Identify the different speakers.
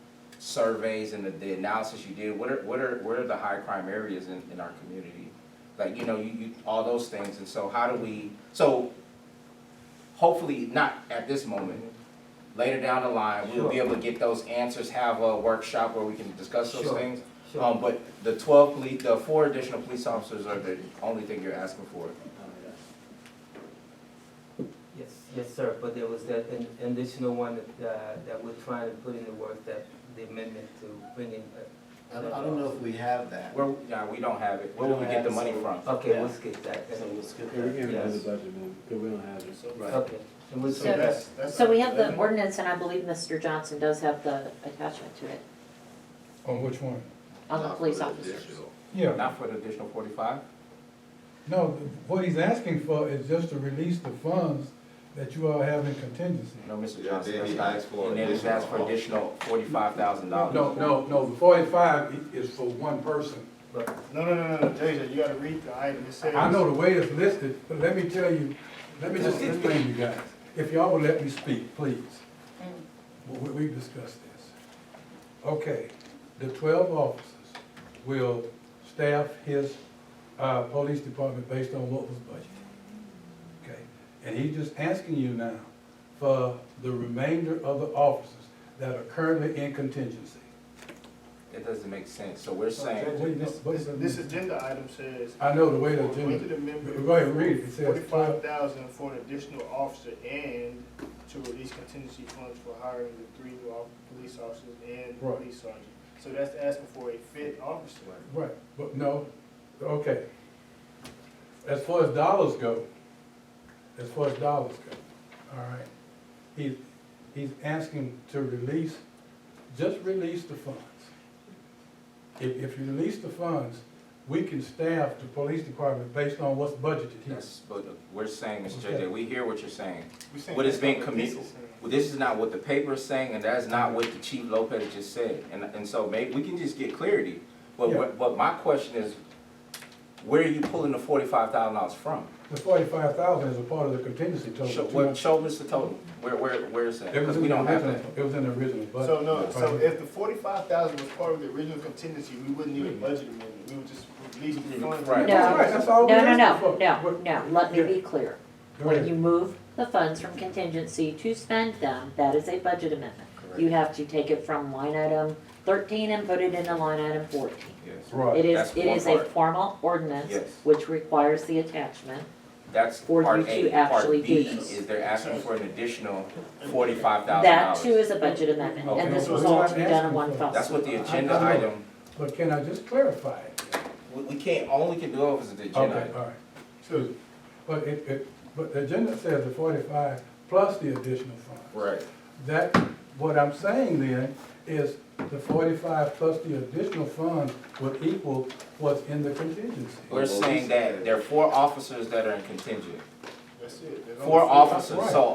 Speaker 1: surveys and the, the analysis you did, what are, what are, what are the high crime areas in, in our community? Like, you know, you, you, all those things, and so how do we, so hopefully not at this moment, later down the line, we'll be
Speaker 2: Sure.
Speaker 1: able to get those answers, have a workshop where we can discuss those
Speaker 2: Sure.
Speaker 1: things.
Speaker 2: Sure.
Speaker 1: Um, but the twelve police, the four additional police officers are the only thing you're asking for.
Speaker 2: Yes, yes, sir, but there was that an- additional one that, uh, that we're trying to put in the work, that the amendment to bring in. uh,
Speaker 3: I don't, I don't know if we have that.
Speaker 1: Where, nah, we don't have it. Where will we get the money from?
Speaker 2: Okay, we'll
Speaker 3: Yeah.
Speaker 2: skip that.
Speaker 3: So we'll skip
Speaker 4: Yeah, we
Speaker 3: that.
Speaker 4: can't do the
Speaker 2: Yes.
Speaker 4: budget one, because we don't have it.
Speaker 3: Right.
Speaker 2: Okay, and we'll
Speaker 5: So
Speaker 2: skip that.
Speaker 5: that's- that's-
Speaker 6: So we have the ordinance, and I believe Mr. Johnson does have the attachment to it,
Speaker 5: On which one?
Speaker 6: on the police officers.
Speaker 5: Yeah,
Speaker 1: Not for the additional forty-five?
Speaker 5: no, what he's asking for is just to release the funds that you all have in contingency.
Speaker 1: No, Mr.
Speaker 7: Yeah,
Speaker 1: Johnson,
Speaker 7: then
Speaker 1: that's
Speaker 7: he
Speaker 1: not,
Speaker 7: asked for
Speaker 1: and then he
Speaker 7: additional-
Speaker 1: asked for additional forty-five thousand dollars.
Speaker 5: No, no, no, the forty-five i- is for one person.
Speaker 8: No, no, no, no, no, Jason, you gotta read the item, it says.
Speaker 5: I know the way it's listed, but let me tell you, let me just explain you guys. If y'all will let me speak, please. We, we've discussed this. Okay, the twelve officers will staff his, uh, police department based on what was budgeted. Okay, and he's just asking you now for the remainder of the officers that are currently in contingency.
Speaker 1: It doesn't make sense. So we're
Speaker 8: So,
Speaker 1: saying,
Speaker 8: Jason,
Speaker 5: Wait, what is
Speaker 8: This
Speaker 5: it?
Speaker 8: this agenda item says.
Speaker 5: I know the way the
Speaker 8: Appointed
Speaker 5: agenda,
Speaker 8: amendment.
Speaker 5: Go ahead, read it. It says-
Speaker 8: Forty-five thousand for an additional officer and to release contingency funds for hiring the three new off- police officers and
Speaker 5: Right.
Speaker 8: police sergeant. So that's asking for a fifth officer.
Speaker 5: right, but no, okay. As far as dollars go, as far as dollars go, all right, he, he's asking to release, just release the funds. If, if you release the funds, we can staff the police department based on what's budgeted here.
Speaker 1: yes, but we're saying, Mr.
Speaker 5: Okay.
Speaker 1: JJ, we hear what you're saying.
Speaker 8: We're saying
Speaker 1: What is
Speaker 8: that's not
Speaker 1: being
Speaker 8: what this
Speaker 1: commu-
Speaker 8: is saying.
Speaker 1: Well, this is not what the paper is saying, and that's not what the Chief Lopez just said. And, and so maybe we can just get clarity. But,
Speaker 5: Yeah.
Speaker 1: what- but my question is, where are you pulling the forty-five thousand dollars from?
Speaker 5: The forty-five thousand is a part of the contingency total.
Speaker 1: Show,
Speaker 5: Too
Speaker 1: what,
Speaker 5: much-
Speaker 1: show Mr. Totem, where, where, where is that?
Speaker 5: It
Speaker 1: Because
Speaker 5: was in
Speaker 1: we
Speaker 5: the
Speaker 1: don't have
Speaker 5: original,
Speaker 1: that.
Speaker 5: it was in the original budget.
Speaker 8: So no, so
Speaker 5: Right.
Speaker 8: if the forty-five thousand was part of the original contingency, we wouldn't need a budget amendment, we would just release the funds.
Speaker 1: Right.
Speaker 5: That's right, that's all
Speaker 6: No,
Speaker 5: we
Speaker 6: no,
Speaker 5: asked
Speaker 6: no,
Speaker 5: for.
Speaker 6: no,
Speaker 5: What-
Speaker 6: no, let me
Speaker 5: Yeah.
Speaker 6: be clear.
Speaker 5: Go
Speaker 6: When
Speaker 5: ahead.
Speaker 6: you move the funds from contingency to spend them, that is a budget amendment. You have to take it from line item thirteen and put it into line item fourteen.
Speaker 1: Yes.
Speaker 5: Right,
Speaker 6: It is,
Speaker 1: That's
Speaker 6: it
Speaker 1: one
Speaker 6: is a
Speaker 1: part.
Speaker 6: formal ordinance,
Speaker 1: Yes.
Speaker 6: which requires the attachment.
Speaker 1: That's
Speaker 6: For
Speaker 1: part
Speaker 6: you to
Speaker 1: A.
Speaker 6: actually
Speaker 1: Part B
Speaker 6: do this.
Speaker 1: is they're asking for an additional forty-five thousand
Speaker 6: That too
Speaker 1: dollars.
Speaker 6: is a budget amendment,
Speaker 1: Okay.
Speaker 6: and this was
Speaker 5: We're
Speaker 6: all
Speaker 5: not
Speaker 6: to be done in
Speaker 5: asking
Speaker 6: one
Speaker 5: for-
Speaker 6: fell
Speaker 1: That's what
Speaker 6: swoop.
Speaker 1: the agenda
Speaker 5: I- I know.
Speaker 1: item,
Speaker 5: but can I just clarify it?
Speaker 1: we, we can't, only can do it if it's an agenda
Speaker 5: Okay,
Speaker 1: item.
Speaker 5: all right. Excuse me. But it, it, but the agenda says the forty-five plus the additional funds.
Speaker 1: Right.
Speaker 5: That, what I'm saying then is the forty-five plus the additional funds would equal what's in the contingency.
Speaker 1: We're saying that there are four officers that are in contingent,
Speaker 8: That's it. There's only
Speaker 1: four officers,
Speaker 5: Right.
Speaker 1: so